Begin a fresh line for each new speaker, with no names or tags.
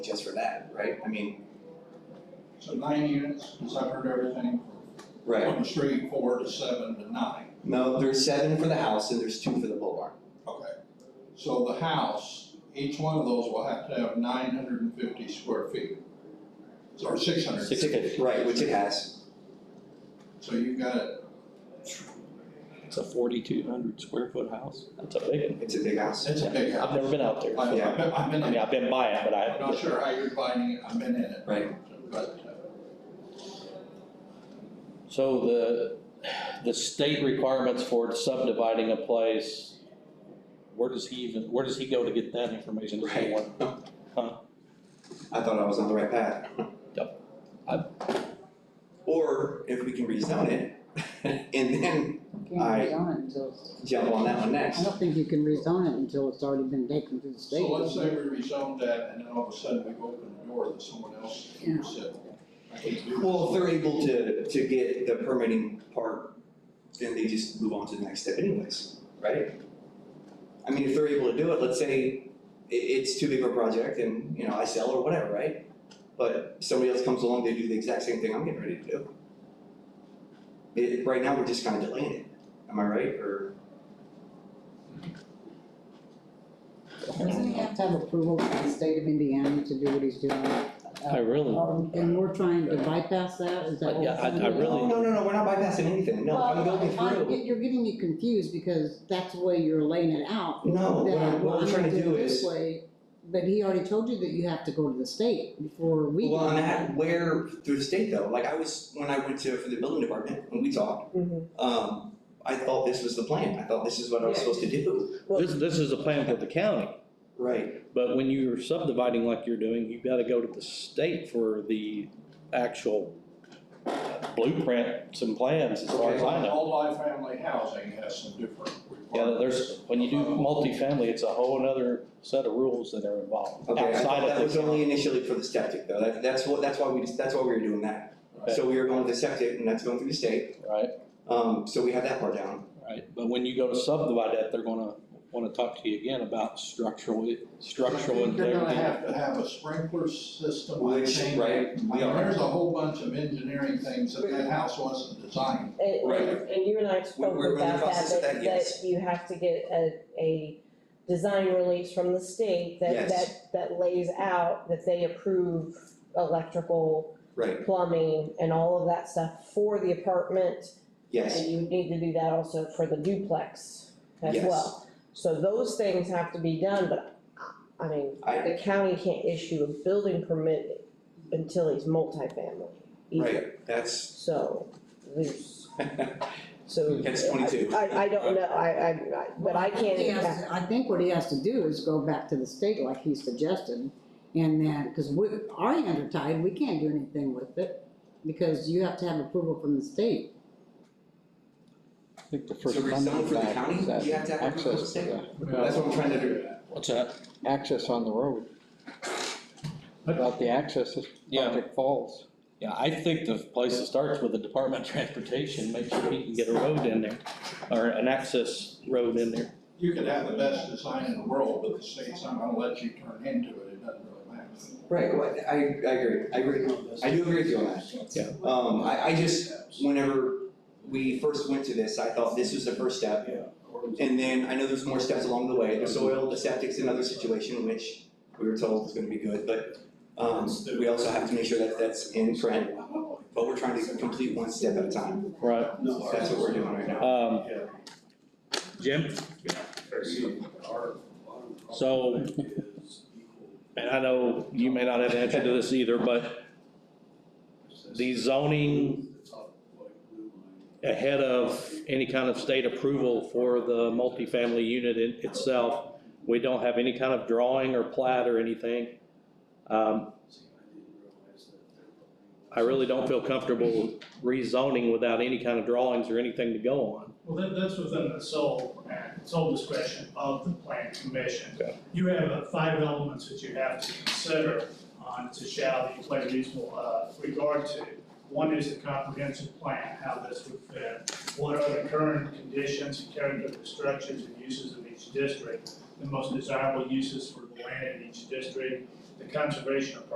just for that, right? I mean,
So nine units, because I've heard everything
right.
from three, four to seven to nine.
No, there's seven for the house and there's two for the pole barn.
Okay. So the house, each one of those will have to have nine hundred and fifty square feet. Or six hundred.
Right, which it has.
So you've got it,
It's a forty-two hundred square foot house. That's a big one.
It's a big house.
it's a big
I've
house.
never been out there.
I've,
so-
I've been, I've been
I
in
mean,
it.
I've been by it, but
I'm not
I,
sure how you're finding it, I've been in it.
Right.
But, uh,
so the, the state requirements for subdividing a place, where does he even, where does he go to get that information? Does
Right.
he want-
I thought I was on the right path.
Yep.
Or if we can rezone it and then
Can't
I-
rezone it until,
jump on that one
I
next.
don't think you can rezone it until it's already been taken to the state.
so let's say we rezoned that, and then all of a sudden we've opened the door that someone else
Yeah.
said. I can do
Well, if
this.
they're able to, to get the permitting part, then they just move on to the next step anyways, right? I mean, if they're able to do it, let's say i- it's too big of a project and, you know, I sell or whatever, right? But somebody else comes along, they do the exact same thing I'm getting ready to do. It, right now, we're just kind of delaying it, am I right, or?
Doesn't he have to have approval from the state of Indiana to do what he's doing?
I Oh, really,
Um, And we're trying to bypass that, is that what?
Yeah, I- I really-
No, no, no, we're not bypassing anything, no, I'm going through.
Well, I- you're getting me confused because that's the way you're laying it out.
No, what I'm, what
That,
we're
well, I'm
trying to
gonna
do
do it this
is,
way, but he already told you that you have to go to the state before we.
well,
do
and
that.
that, where, through the state though, like I was, when I went to, for the building department, when we talked,
Mm-hmm.
um, I thought this was the plan, I thought this is what I was supposed to do,
this, this is a plan for the county,
right?
but when you're subdividing like you're doing, you've gotta go to the state for the actual blueprints and plans as far as I know.
Multi-family housing has some different
Yeah,
requirements.
there's, when you do multifamily, it's a whole other set of rules that are involved
Okay, I
outside
thought
of
that
the.
was only initially for the septic though, that, that's what, that's why we, just- that's why we were doing that.
Okay.
So we were going with the septic and that's going through the state,
Right,
um, so we have that part down,
right, but when you go to subdivide that, they're gonna wanna talk to you again about structural, structural
I think You're gonna
integrity.
have to have a sprinkler system, I
which,
think.
right,
I
we
mean,
are,
there's a whole bunch of engineering things that that house wasn't designed.
And,
Right.
and- and you and I spoke
we're in the
about that,
process of that,
that,
yes.
that you have to get a, a design release from the state that,
Yes.
that, that lays out that they approve electrical,
right,
plumbing, and all of that stuff for the apartment.
yes,
And you need to do that also for the duplex as
Yes.
well. So those things have to be done, but, I mean,
I-
the county can't issue a building permit until he's multifamily either.
right, that's,
So, there's, so.
That's 22.
I, I don't know, I, I, I- but I
Well,
can't
he has
impact,
to- I think what he has to do is go back to the state like he suggested, and then, cause we, our hands are tied, we can't do anything with it, because you have to have approval from the state.
I think the
so rezone for the county, you have to have access to the state. That's what I'm trying to do.
What's that?
access on the road. About the access of
Yeah.
Project Falls.
Yeah, I think the place that starts with the Department of Transportation, make sure he can get a road in there, or an access road in there.
You could have the best design in the world, but the state's not gonna let you turn into it, it doesn't really matter.
Right, well, I, I agree, I agree, I do agree with you on that.
Yeah.
Um, I, I just, whenever we first went to this, I thought this was the first step. And then I know there's more steps along the way, the soil, the septic's another situation, which we were told was gonna be good, but, um, we also have to make sure that that's in print. But we're trying to complete one step at a time,
Right.
that's what we're doing right now.
Um, Jim, so, and I know you may not have an answer to this either, but the zoning ahead of any kind of state approval for the multifamily unit in itself, we don't have any kind of drawing or plat or anything. Um, I really don't feel comfortable rezoning without any kind of drawings or anything to go on.
Well, that, that's within the sole, and sole discretion of the plan commission. You have uh, five elements that you have to consider on to shall be play reasonable, uh, regard to. One is the comprehensive plan, how this would fit, what are the current conditions and character of the structures and uses of each district, the most desirable uses for the land in each district, the conservation of